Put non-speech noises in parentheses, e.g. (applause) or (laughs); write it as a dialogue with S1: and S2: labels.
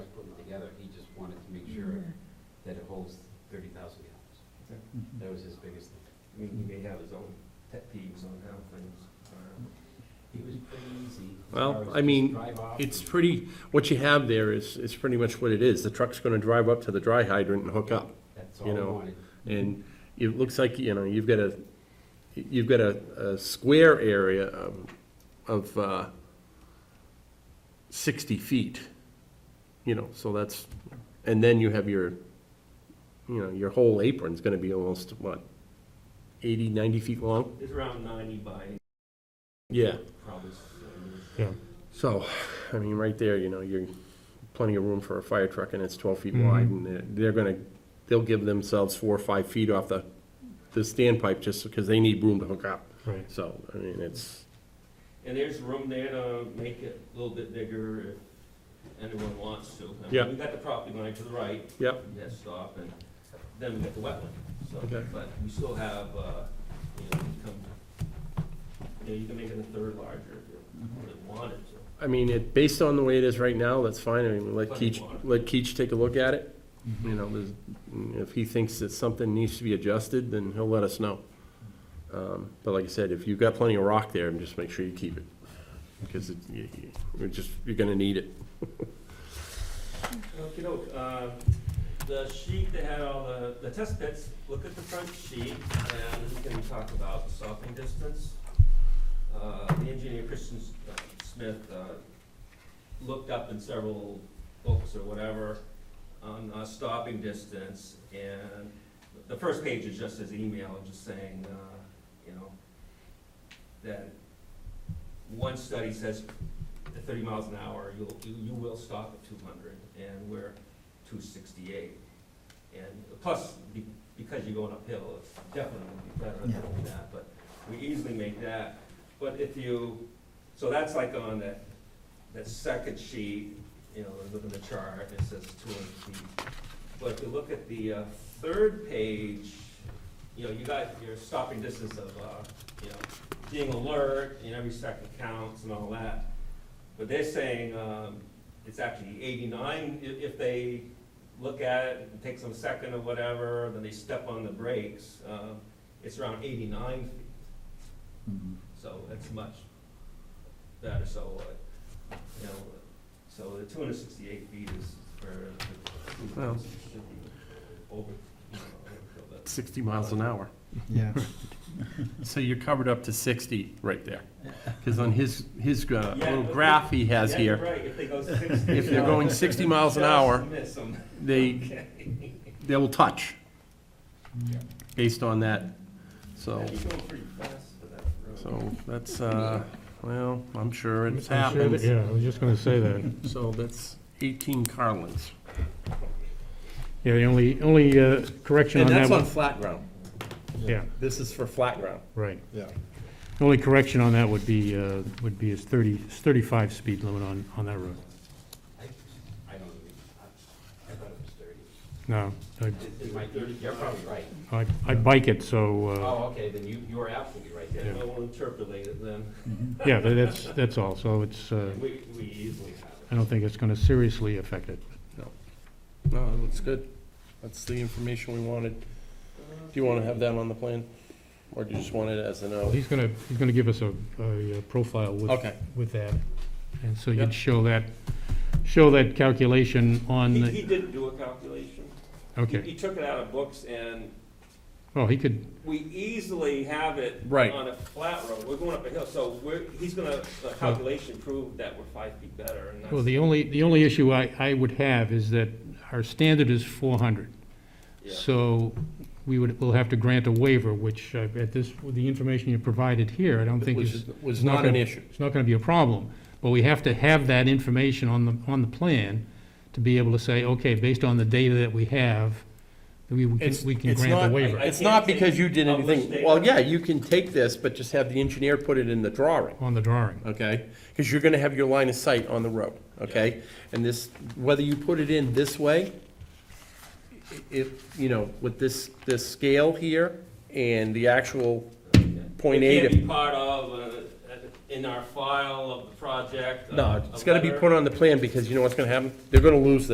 S1: that it holds thirty thousand gallons. That was his biggest thing.
S2: I mean, he may have his own pet peeves on how things are.
S1: He was pretty easy. as
S3: Well,
S1: far as
S3: I
S1: just
S3: mean,
S1: drive off
S3: It's
S1: and-
S3: pretty, what you have there is, is pretty much what it is. The truck's gonna drive up to the dry hydrant and hook up.
S1: That's
S3: you
S1: all I
S3: know,
S1: wanted.
S3: And it looks like, you know, you've got a, you've got a, a square area of, of, uh, sixty feet, you know, so that's, and then you have your, you know, your whole apron's gonna be almost, what, eighty, ninety feet long?
S2: It's around ninety by
S3: Yeah.
S2: probably. something.
S3: So, I mean, right there, you know, you're plenty of room for a fire truck and it's twelve feet wide and they're, they're gonna, they'll give themselves four or five feet off the, the standpipe just because they need room to hook up.
S4: Right.
S3: So, I mean, it's,
S2: And there's room there to make it a little bit bigger if anyone wants to. I mean,
S3: Yeah.
S2: We got the property line to the right,
S3: yep,
S2: that stop, and then we got the wetland, so,
S3: Okay.
S2: but we still have, uh, you know, you come, you know, you can make it a third larger if you
S3: Mm-hmm.
S2: really wanted to.
S3: I mean, it, based on the way it is right now, that's fine. I mean, let
S2: Plenty of
S3: Keach,
S2: water.
S3: let Keach take a look at it. You know, there's, if he thinks that something needs to be adjusted, then he'll let us know. Um, But like I said, if you've got plenty of rock there, just make sure you keep it, because it, you, you- we're just, you're gonna need it.
S2: Okay, uh, the sheet that had all the, the test pits, look at the front sheet, and we can talk about stopping distance. Uh, the engineer Christian S- uh, Smith, uh, looked up in several books or whatever on, uh, stopping distance, and the first page is just his email, just saying, uh, you know, that one study says at thirty miles an hour, you'll, you, you will stop at two hundred, and we're two sixty-eight. And plus, be- because you're going uphill, it's definitely gonna be better than that, but we easily make that. But if you, so that's like on that, that second sheet, you know, look at the chart, it says two hundred feet. But if you look at the, uh, third page, you know, you got your stopping distance of, uh, you know, being alert, and every second counts and all that. But they're saying, um, it's actually eighty-nine, i- if they look at it, it takes them a second or whatever, then they step on the brakes, um, it's around eighty-nine feet. So that's much better, so, uh, you know, so the two hundred sixty-eight feet is where the
S3: Well.
S2: cruise should be over, you know, overkill, but-
S3: Sixty miles an hour.
S4: Yeah.
S3: (laughs) So you're covered up to sixty right there, because on his, his uh,
S2: Yeah,
S3: little
S2: but-
S3: graph he has
S2: Yeah, you're
S3: here,
S2: right, if they
S3: (laughs)
S2: go sixty.
S3: if they're going sixty miles an
S2: just
S3: hour,
S2: miss 'em.
S3: they,
S2: Okay.
S3: they will touch based on that, so.
S2: Yeah, (laughs) You're going pretty fast for that road.
S3: So that's, uh, well, I'm sure it's
S4: I'm sure that-
S3: happened.
S4: Yeah, I was just gonna say that.
S3: So that's 18 car lengths.
S4: Yeah, the only, only uh, correction
S3: And
S4: on
S3: that's
S4: that
S3: on
S4: one.
S3: flat ground.
S4: Yeah,
S3: This is for flat ground.
S4: right.
S5: Yeah.
S4: The only correction on that would be, uh, would be is thirty, is thirty-five speed limit on, on that road.
S1: I I don't even, I I thought it was thirty.
S4: No, I,
S1: It might be- You're probably right.
S4: I- I bike it, so, uh,
S1: Oh, okay, then you, you are absolutely right
S2: Yeah,
S1: there.
S2: no one interpolated them.
S4: yeah, tha- that's, that's all, so it's, uh,
S2: We, we easily have it.
S4: I don't think it's gonna seriously affect it.
S3: No, it looks good. That's the information we wanted. Do you want to have that on the plan? Or do you just want it as a note?
S4: He's gonna, he's gonna give us a, a uh, profile with,
S3: Okay.
S4: with that. And so
S3: Yep.
S4: you'd show that, show that calculation on,
S2: He,
S4: the
S2: he did do a calculation. He-
S4: okay.
S2: He took it out of books and
S4: Well, he could,
S2: we easily have it.
S3: Right.
S2: On a flat road, we're going up a hill, so we're, he's gonna, the calculation proved that we're five feet better and that's.
S4: Well, the only, the only issue I, I would have is that our standard is four hundred.
S2: yeah.
S4: So we would, we'll have to grant a waiver, which uh, at this, with the information you provided here, I don't think
S3: Which
S4: is,
S3: was not an issue.
S4: it's not gonna be a problem. But we have to have that information on the, on the plan to be able to say, okay, based on the data that we have, we we
S3: It's-
S4: can, we can
S3: it's
S4: grant
S3: not-
S4: a waiver
S3: It's not because you did anything, well, yeah, you can take this, but just have the engineer put it in the drawing.
S4: on the drawing.
S3: okay? Because you're gonna have your line of sight on the road, okay? And this, whether you put it in this way, i- if, you know, with this, this scale here and the actual point
S2: It can't be
S3: eight,
S2: part of, uh, in our file of the project. uh,
S3: no,
S2: a
S3: it's gotta be
S2: letter.
S3: put on the plan, because you know what's gonna happen? They're gonna lose this.